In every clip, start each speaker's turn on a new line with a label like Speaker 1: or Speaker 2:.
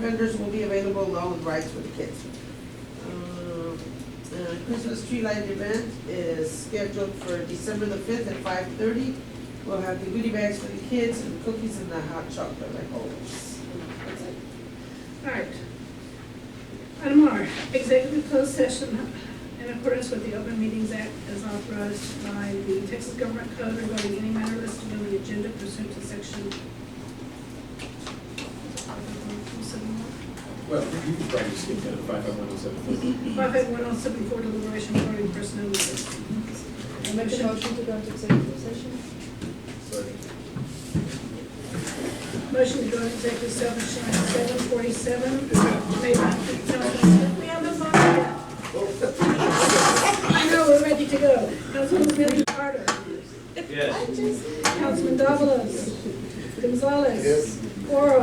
Speaker 1: Vendors will be available along with rides for the kids. Um, uh, Christmas tree light event is scheduled for December the fifth at five thirty. We'll have the goodie bags for the kids and cookies and the hot chocolate like always.
Speaker 2: All right. Item R, executive closed session in accordance with the Open Meetings Act as authorized by the Texas Government Code regarding any matter listed on the agenda pursuant to section.
Speaker 3: Well, you can probably skip that five five one oh seven four.
Speaker 2: Five eight one oh seven four deliberation regarding personnel matters.
Speaker 4: I make a motion to go into executive session.
Speaker 3: Sorry.
Speaker 2: Motion to go into executive session at seven forty-seven. Made by Councilman Smith, we have a motion. I know, we're ready to go. Councilman Billy Carter. Yes. Councilman Davalos. Gonzalez. Yes. Oro.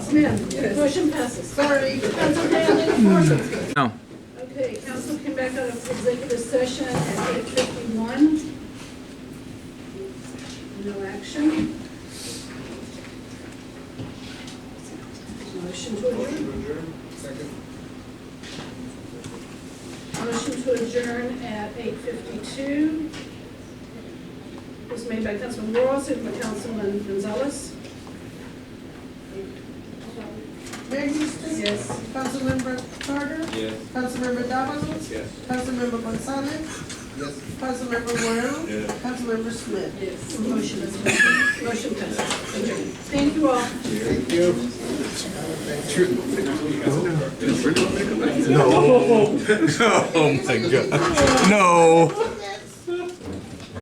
Speaker 2: Smith. Motion passes.
Speaker 1: Sorry.
Speaker 2: Council Day, i
Speaker 5: No.
Speaker 2: Okay, council came back out of executive session at eight fifty-one. No action. Motion to adjourn. Motion to adjourn at eight fifty-two. Was made by Councilman Laurel, seconded by Councilman Gonzalez.
Speaker 1: Mayor Houston.
Speaker 2: Yes.
Speaker 1: Councilmember Carter.
Speaker 3: Yes.
Speaker 1: Councilmember Davalos.
Speaker 3: Yes.
Speaker 1: Councilmember Gonzalez.
Speaker 3: Yes.
Speaker 1: Councilmember Guerrero.
Speaker 3: Yes.
Speaker 1: Councilmember Smith.
Speaker 2: Yes. Motion is, motion passes. Adjourn. Thank you all.
Speaker 3: Thank you. True.
Speaker 5: No. Oh my god. No.